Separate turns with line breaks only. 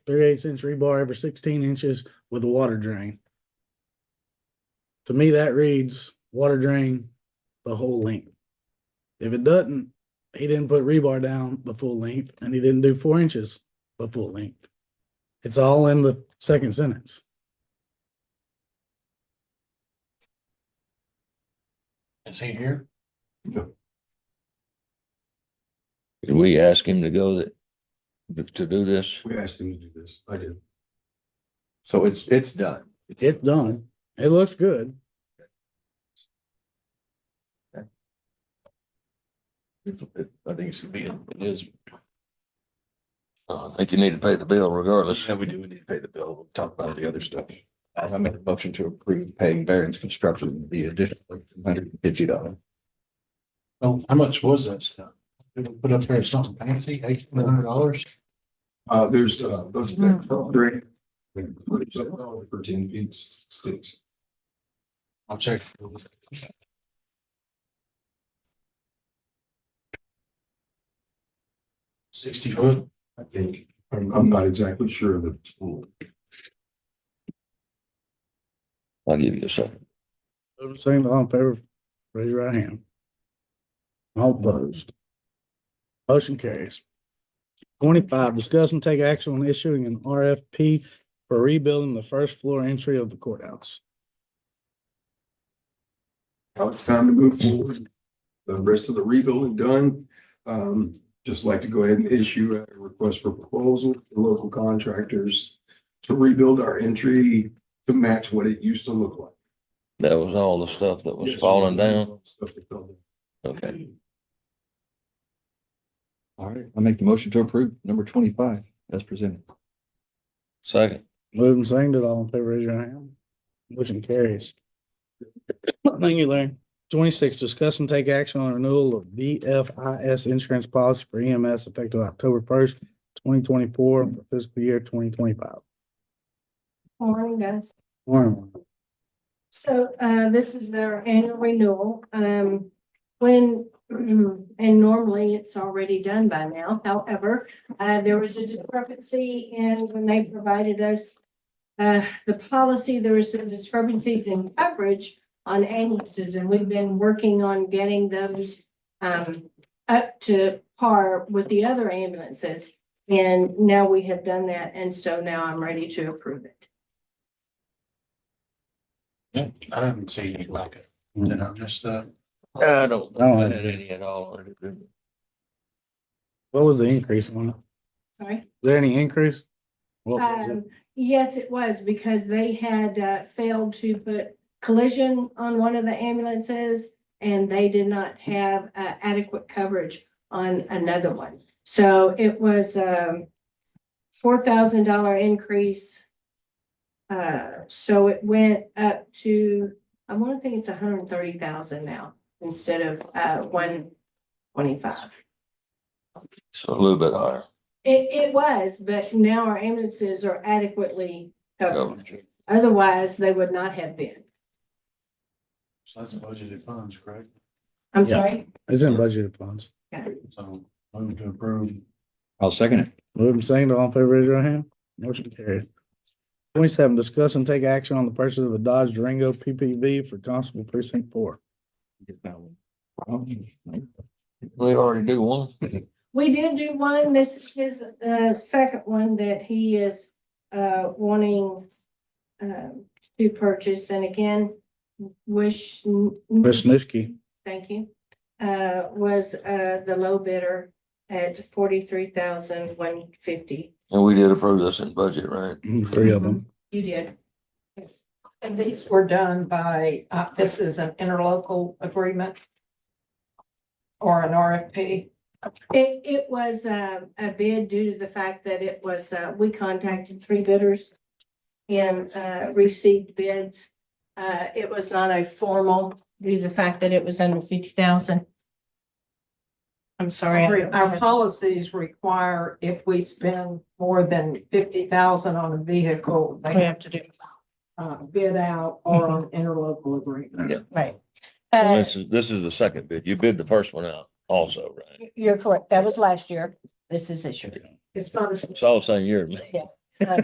three eighths inch rebar every sixteen inches with a water drain. To me, that reads water drain the whole length. If it doesn't, he didn't put rebar down the full length and he didn't do four inches the full length. It's all in the second sentence.
Is he here?
Did we ask him to go that, to do this?
We asked him to do this. I did.
So it's, it's done.
It's done. It looks good.
It's, it- I think it should be, it is.
Uh, I think you need to pay the bill regardless.
Yeah, we do, we need to pay the bill. We'll talk about the other stuff. I make a motion to approve paying variance construction the additional hundred and fifty dollars.
Oh, how much was that stuff? Did we put up there something fancy, eight hundred dollars?
Uh, there's, uh, those. Three. For ten feet sticks.
I'll check. Sixty foot,
I think, I'm, I'm not exactly sure of the tool.
I'll give you a second.
Move to second, all in favor, raise your right hand. All opposed. Motion carries. Twenty-five, discuss and take action on issuing an RFP for rebuilding the first floor entry of the courthouse.
Now it's time to move forward. The rest of the rebuilding done. Um, just like to go ahead and issue a request for proposal to local contractors to rebuild our entry to match what it used to look like.
That was all the stuff that was falling down?
Stuff that fell down.
Okay.
All right, I make the motion to approve number twenty-five as presented.
Second,
Moved and seconded, all in favor, raise your hand. Motion carries. Thank you, Larry. Twenty-six, discuss and take action on renewal of VFIS insurance policy for EMS effective October first, twenty twenty-four, for fiscal year twenty twenty-five.
Morning, guys.
Warren,
So uh, this is their annual renewal. Um, when, and normally it's already done by now. However, uh, there was a discrepancy in when they provided us uh, the policy, there was some discrepancies in coverage on ambulances, and we've been working on getting those um, up to par with the other ambulances. And now we have done that, and so now I'm ready to approve it.
I didn't see any like it, did I miss that?
I don't,
I don't have
had any at all.
what was the increase on it?
Sorry?
Is there any increase? What was it?
Um, yes, it was because they had uh, failed to put collision on one of the ambulances and they did not have uh, adequate coverage on another one. So it was um four thousand dollar increase. Uh, so it went up to, I want to think it's $130,000 now instead of uh one twenty-five.
It's a little bit higher.
It, it was, but now our ambulances are adequately covered.
Coverage.
Otherwise, they would not have been.
So that's budgeted funds, correct?
I'm
Yeah.
sorry.
It's in budgeted funds.
So move to approve.
I'll second it.
Move and second, all in favor, raise your hand. Motion carried. Twenty-seven, discuss and take action on the purchase of a Dodge Durango PPV for Constable Precinct Four.
Get that one. Um,
We already do one.
We did do one. This is his, uh, second one that he is, uh, wanting, um, to purchase. And again, wish.
Ms. Nusky,
Thank you. Uh, was, uh, the low bidder at forty-three thousand one fifty.
And we did approve this in budget, right?
three of them.
You did.
And these were done by, uh, this is an interlocal agreement? Or an RFP?
It, it was a, a bid due to the fact that it was, uh, we contacted three bidders and, uh, received bids. Uh, it was not a formal, due to the fact that it was under fifty thousand. I'm sorry. Uh,
Our policies require if we spend more than fifty thousand on a vehicle, they have to do uh, bid out or an interlocal agreement.
Right.
Well,
Uh,
This is, this is the second bid. You bid the first one out also, right?
you're correct. That was last year. This is this year.
It's not,
It's all the same year.
Yeah.